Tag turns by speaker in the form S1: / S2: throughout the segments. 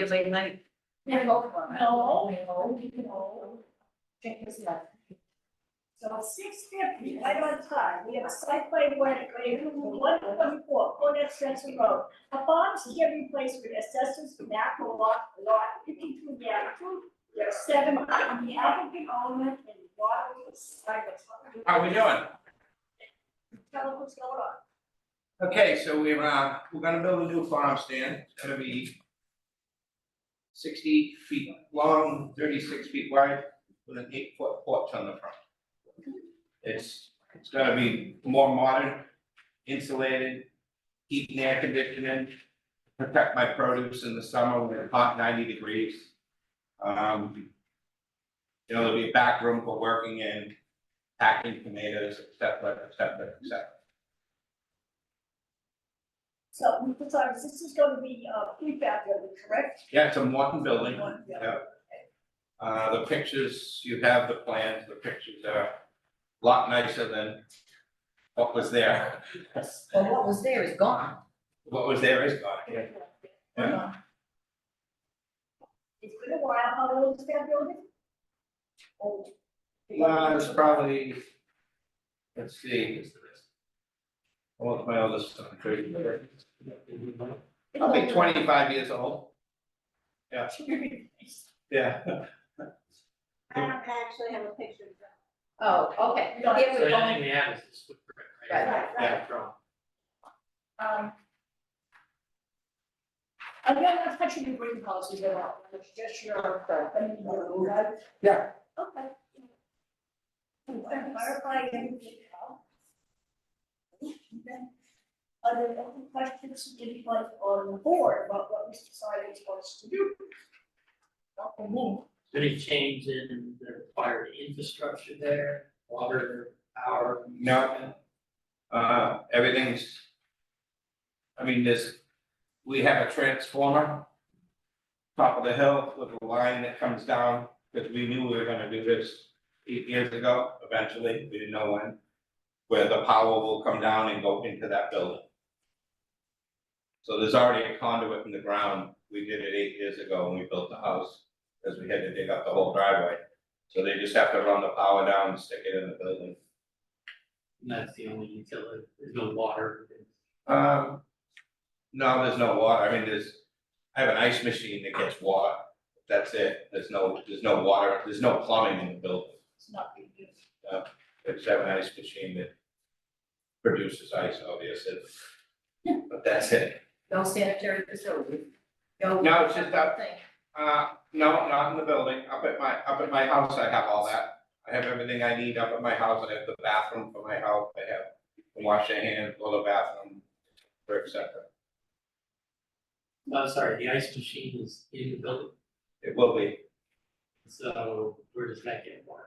S1: It's late night.
S2: No,
S1: Oh,
S2: no, no. Check this out. So six fifty, right on time, we have a site plan work, one twenty-four, Cornet Spencer Road. Upon here replaced with assessors map lot, lot fifty-two, yeah, two, there are seven, uh, on the applicant element and water side.
S3: How we doing?
S2: Tell them what's going on.
S3: Okay, so we're, uh, we're gonna build a new farm stand, it's gonna be sixty feet long, thirty-six feet wide, with an eight-foot porch on the front. It's, it's gonna be more modern, insulated, heat and air conditioning, protect my produce in the summer when it's hot ninety degrees. Um, you know, there'll be a back room for working in, packing tomatoes, et cetera, et cetera, et cetera.
S2: So, we put on- this is gonna be, uh, prefab building, correct?
S3: Yeah, it's a modern building.
S2: One, yeah.
S3: Uh, the pictures, you have the plans, the pictures are a lot nicer than what was there.
S1: Well, what was there is gone.
S3: What was there is gone. yeah. Yeah.
S2: It's been a while, how old is that building? Old.
S3: Well, Uh, it's probably, let's see. Well, my oldest son, thirty, probably twenty-five years old. Yeah.
S4: I don't actually have a picture of that.
S1: Oh, okay.
S2: No,
S1: Here
S5: So
S1: we
S5: I
S1: go.
S5: think we have is this footprint, right?
S1: Right,
S3: right.
S5: From-
S2: Um. I'm not touching the green policies at all, it's just your, um, right?
S3: Yeah.
S2: Okay. I'm clarifying everything now. Are there any questions anyone on the board about what Mr. Simons wants to do? Not for me.
S5: Is there Any change in the required infrastructure there, water, power?
S3: No. Uh, everything's. I mean, this, we have a transformer. Top of the hill with a line that comes down, because we knew we were gonna do this eight years ago, eventually, we didn't know when. Where the power will come down and go into that building. So there's already a conduit in the ground, we did it eight years ago when we built the house, because we had to dig up the whole driveway. So they just have to run the power down and stick it in the building.
S5: And that's the only utility, there's no water.
S3: Um, no, there's no water, I mean, there's, I have an ice machine that gets water, that's it, there's no, there's no water, there's no plumbing in the building.
S2: It's not being used.
S3: I just have an ice machine that produces ice, obviously, but that's it.
S1: No sanitary facility. No.
S3: No, it's just that-
S1: Thing.
S3: Uh, no, not in the building, up at my, up at my house, I have all that, I have everything I need up at my house, I have the bathroom for my house, I have wash your hands, go to the bathroom, et cetera.
S5: No, sorry, the ice machine is in the building,
S3: It will be
S5: so where does that get water?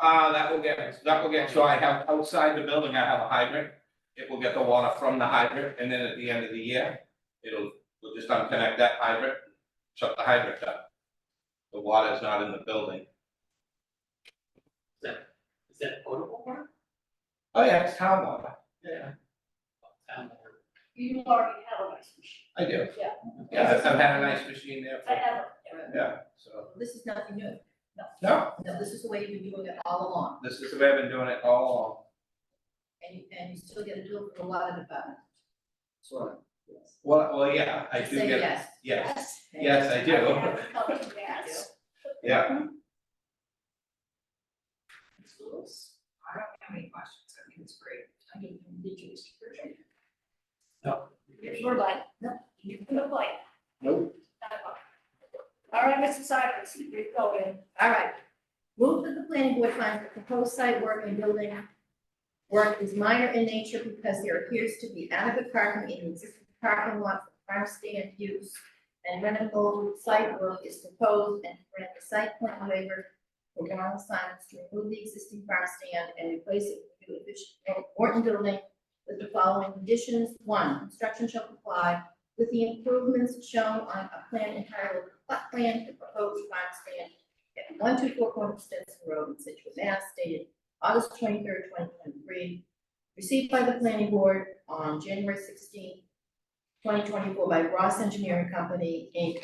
S3: Uh, that will get, that will get, so I have outside the building, I have a hydrant. It will get the water from the hydrant and then at the end of the year, it'll, we'll just unconnect that hydrant, shut the hydrant down. The water is not in the building.
S5: Is that, is that potable water?
S3: Oh, yeah, it's town water. Yeah.
S5: Town water.
S2: You already have a nice machine.
S3: I do.
S2: Yeah.
S3: Yeah, I've had a nice machine there
S2: I
S3: for,
S2: have,
S3: yeah, so,
S1: This is nothing new.
S3: no,
S1: No, this is the way you've been doing it all along.
S3: this is the way I've been doing it all along.
S1: And you, and you still get to do it for a lot of departments. Sure. Yes.
S3: Well, well, yeah, I do
S1: Say
S3: get,
S1: yes.
S3: yes,
S2: yes.
S3: yes, I
S2: I
S3: do,
S2: have a couple of yes.
S3: yeah.
S1: Schools. I don't have any questions. I think it's great. I mean, did you, Mr. Pritchard?
S2: If You're like, no, you're like.
S3: Nope.
S2: All right, Mr. Cyrus, you're going.
S1: All right. Move that the planning board finds that proposed site work and building work is minor in nature because there appears to be adequate parking in the existing parking lot for farm stand use. And rentable site work is proposed and grant the site plan waiver for ground signs to remove the existing farm stand and replace it with new efficient Morton building with the following conditions. One, construction shall comply with the improvements shown on a plan entitled plot plan for proposed farm stand at one two four corner Stetson Road in Situate, Mass, dated August twenty-third, twenty twenty-three, received by the planning board on January 16, twenty twenty-four by Ross Engineering Company, Inc.,